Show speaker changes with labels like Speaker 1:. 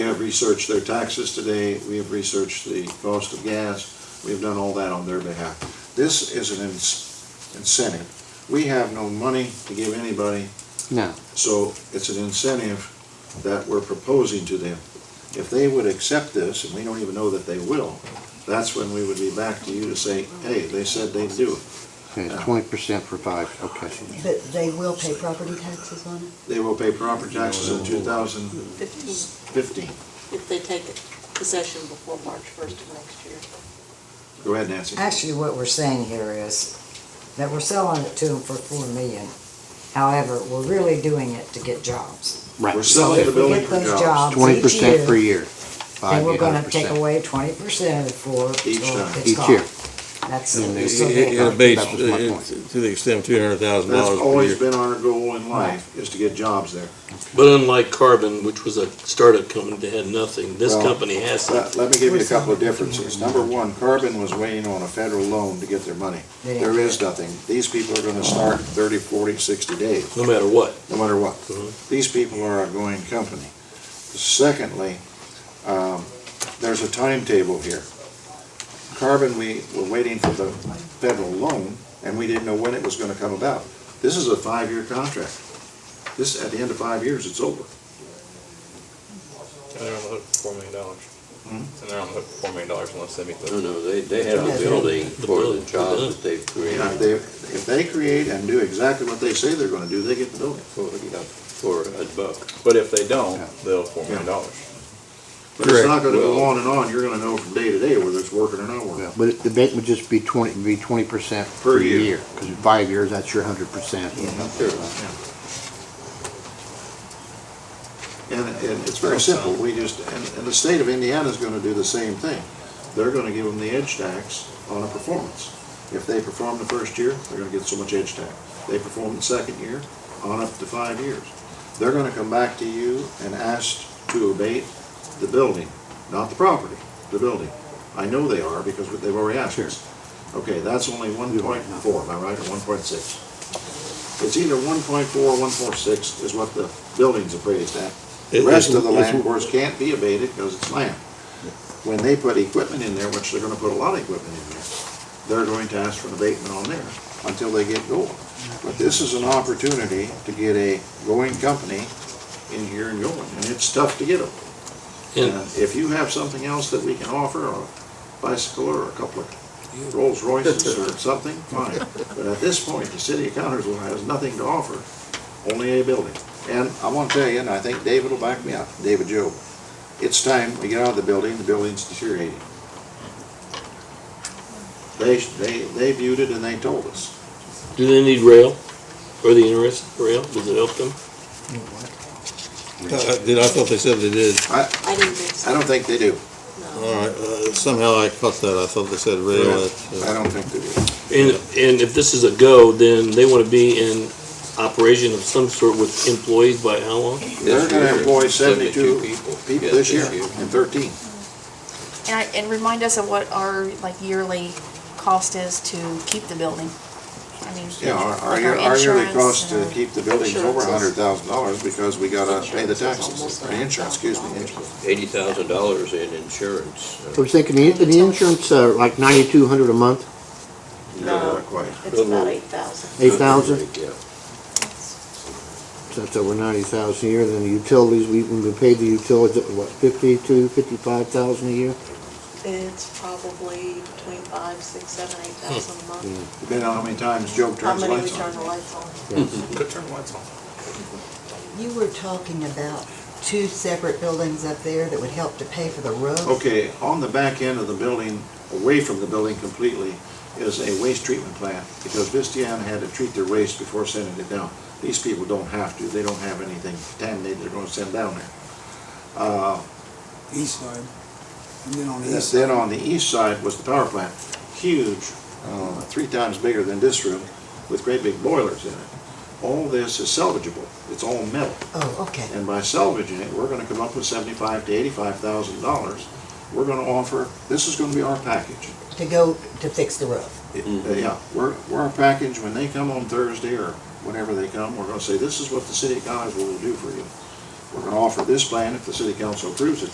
Speaker 1: researched their taxes today, we have researched the cost of gas, we have done all that on their behalf. This is an ins- incentive. We have no money to give anybody,
Speaker 2: No.
Speaker 1: so it's an incentive that we're proposing to them. If they would accept this, and we don't even know that they will, that's when we would be back to you to say, hey, they said they'd do it.
Speaker 2: Okay, twenty percent for five, okay.
Speaker 3: But they will pay property taxes on it?
Speaker 1: They will pay property taxes in two thousand
Speaker 4: Fifteen,
Speaker 1: fifteen.
Speaker 4: if they take possession before March first of next year.
Speaker 1: Go ahead, Nancy.
Speaker 3: Actually, what we're saying here is that we're selling it to them for four million. However, we're really doing it to get jobs.
Speaker 1: We're
Speaker 2: Right.
Speaker 1: selling the
Speaker 3: If we
Speaker 1: building
Speaker 3: get
Speaker 1: for
Speaker 3: those
Speaker 1: jobs.
Speaker 3: jobs
Speaker 2: Twenty
Speaker 3: each
Speaker 2: percent per
Speaker 3: year,
Speaker 2: year.
Speaker 3: then
Speaker 2: Five,
Speaker 3: we're
Speaker 2: eight hundred
Speaker 3: gonna take
Speaker 2: percent.
Speaker 3: away twenty percent of it for what
Speaker 1: Each time.
Speaker 3: it's
Speaker 2: Each
Speaker 3: called.
Speaker 2: year.
Speaker 3: That's,
Speaker 2: And they-
Speaker 3: so
Speaker 5: It
Speaker 3: they-
Speaker 2: yeah.
Speaker 5: it abates,
Speaker 2: That was my
Speaker 5: uh,
Speaker 2: point.
Speaker 5: to the extent of two hundred thousand
Speaker 1: That's
Speaker 5: dollars
Speaker 1: always
Speaker 5: per year.
Speaker 1: been our goal in life, is to get jobs there.
Speaker 6: But unlike Carbon, which was a startup company that had nothing, this
Speaker 1: Well,
Speaker 6: company has
Speaker 1: Let,
Speaker 6: something.
Speaker 1: let me give you a couple of differences. Number one, Carbon was waiting on a federal loan to get their money.
Speaker 3: They didn't
Speaker 1: There
Speaker 3: get
Speaker 1: is nothing. These people are gonna start in 30, 40, 60 days,
Speaker 6: no matter what.
Speaker 1: no matter what.
Speaker 3: Uh-huh.
Speaker 6: Mhm.
Speaker 1: These people are a going company. Secondly, um, there's a timetable here. Carbon, we were waiting for the federal loan, and we didn't know when it was gonna come about. This is a five-year contract. This, at the end of five years, it's over.
Speaker 7: And they're on the hook for four million dollars. And they're on the hook for four million dollars unless they meet
Speaker 8: No,
Speaker 7: the.
Speaker 8: no, they, they have
Speaker 3: Yeah,
Speaker 8: a
Speaker 3: they-
Speaker 8: building for
Speaker 6: building,
Speaker 8: the
Speaker 6: the
Speaker 8: job
Speaker 6: building.
Speaker 8: that they've
Speaker 1: Yeah, if
Speaker 8: created
Speaker 1: they, if they create and do exactly what they say they're gonna do, they get the building.
Speaker 8: for, you know, for a buck.
Speaker 7: But if they don't,
Speaker 2: Yeah.
Speaker 7: they'll four million dollars.
Speaker 1: But it's not
Speaker 5: Correct.
Speaker 1: gonna go
Speaker 8: Well-
Speaker 1: on and on, you're gonna know from day to day whether it's working or not working.
Speaker 2: But the abatement would just be twenty, be twenty percent
Speaker 1: Per
Speaker 2: per
Speaker 1: year.
Speaker 2: year. Because in five years, that's your hundred percent.
Speaker 1: And, and it's very simple, we just, and, and the state of Indiana's gonna do the same thing. They're gonna give them the edge tax on a performance. If they perform the first year, they're gonna get so much edge tax. They perform the second year, on up to five years. They're gonna come back to you and ask to abate the building, not the property, the building. I know they are because they've already asked us. Okay, that's only one point four, am I right, or one point six? It's either one point four or one point six is what the building's appraised at. The
Speaker 5: It-
Speaker 1: rest
Speaker 5: it's-
Speaker 1: of the
Speaker 5: it's-
Speaker 1: land, of course, can't be abated because it's land. When they put equipment in there, which they're gonna put a lot of equipment in there, they're going to ask for an abatement on there until they get going. But this is an opportunity to get a going company in here and going, and it's tough to get them.
Speaker 6: And
Speaker 1: And if you have something else that we can offer, a bicycle or a couple of Rolls Royces or something, fine. But at this point, the city of Connersville has nothing to offer, only a building. And I want to tell you, and I think David will back me up, David Joe, it's time we get out of the building, the building's deteriorating. They, they, they viewed it and they told us.
Speaker 6: do they need rail? Are they interested in rail? Does it help them?
Speaker 5: Uh, uh, Did, I thought they said they did.
Speaker 4: I didn't think so.
Speaker 1: I don't think they do.
Speaker 5: All right, uh, somehow I caught that. I thought they said rail. that's,
Speaker 1: I
Speaker 5: uh,
Speaker 1: don't think they do.
Speaker 6: And, and if this is a go, then they want to be in operation of some sort with employees by how long?
Speaker 1: They're
Speaker 8: This
Speaker 1: gonna
Speaker 8: year,
Speaker 1: employ seventy-two
Speaker 8: people.
Speaker 1: people
Speaker 8: Yeah,
Speaker 1: this year and thirteen.
Speaker 9: And, I- and remind us of what our, like, yearly cost is to keep the building. I mean,
Speaker 1: Yeah, our, our
Speaker 9: like
Speaker 1: year- our yearly
Speaker 9: insurance
Speaker 1: cost
Speaker 9: and
Speaker 1: to
Speaker 9: our-
Speaker 1: keep the buildings over a hundred
Speaker 4: Insurances.
Speaker 1: thousand dollars because we gotta pay the
Speaker 4: Insurance is
Speaker 1: taxes,
Speaker 4: almost
Speaker 1: or insurance, excuse me, insurance.
Speaker 8: Eighty thousand dollars in insurance.
Speaker 2: I was thinking, the, the insurance, uh, like ninety-two hundred a month,
Speaker 4: Um, No.
Speaker 1: Not quite.
Speaker 4: It's about eight thousand.
Speaker 2: eight thousand?
Speaker 8: Yeah.
Speaker 2: So that's over ninety thousand a year, then the utilities, we, when we paid the utilities, what, fifty-two, fifty-five thousand a year?
Speaker 4: It's probably between five, six, seven, eight thousand a month.
Speaker 1: Depending on how many times Joe
Speaker 4: How
Speaker 1: Hmm. turns the
Speaker 4: many we
Speaker 1: lights
Speaker 4: turn
Speaker 1: on.
Speaker 4: the lights on?
Speaker 7: Could turn the lights on.
Speaker 3: You were talking about two separate buildings up there that would help to pay for the roof.
Speaker 1: Okay, on the back end of the building, away from the building completely, is a waste treatment plant because Vistiana had to treat their waste before sending it down. These people don't have to, they don't have anything contaminated they're gonna send down there. Uh,
Speaker 10: east side, and then on the east
Speaker 1: Yes,
Speaker 10: side.
Speaker 1: Then on the east side was the power plant, huge, uh, three times bigger than this room, with great big boilers in it. All this is salvageable, it's all metal,
Speaker 3: Oh, okay.
Speaker 1: and by salvaging it, we're gonna come up with seventy-five to eighty-five thousand dollars. We're gonna offer, this is gonna be our package.
Speaker 3: To go to fix the roof.
Speaker 1: It- uh, Yeah, we're, we're our package, when they come on Thursday or whenever they come, we're gonna say, this is what the city of Connersville will do for you. We're gonna offer this plan, if the city council approves it,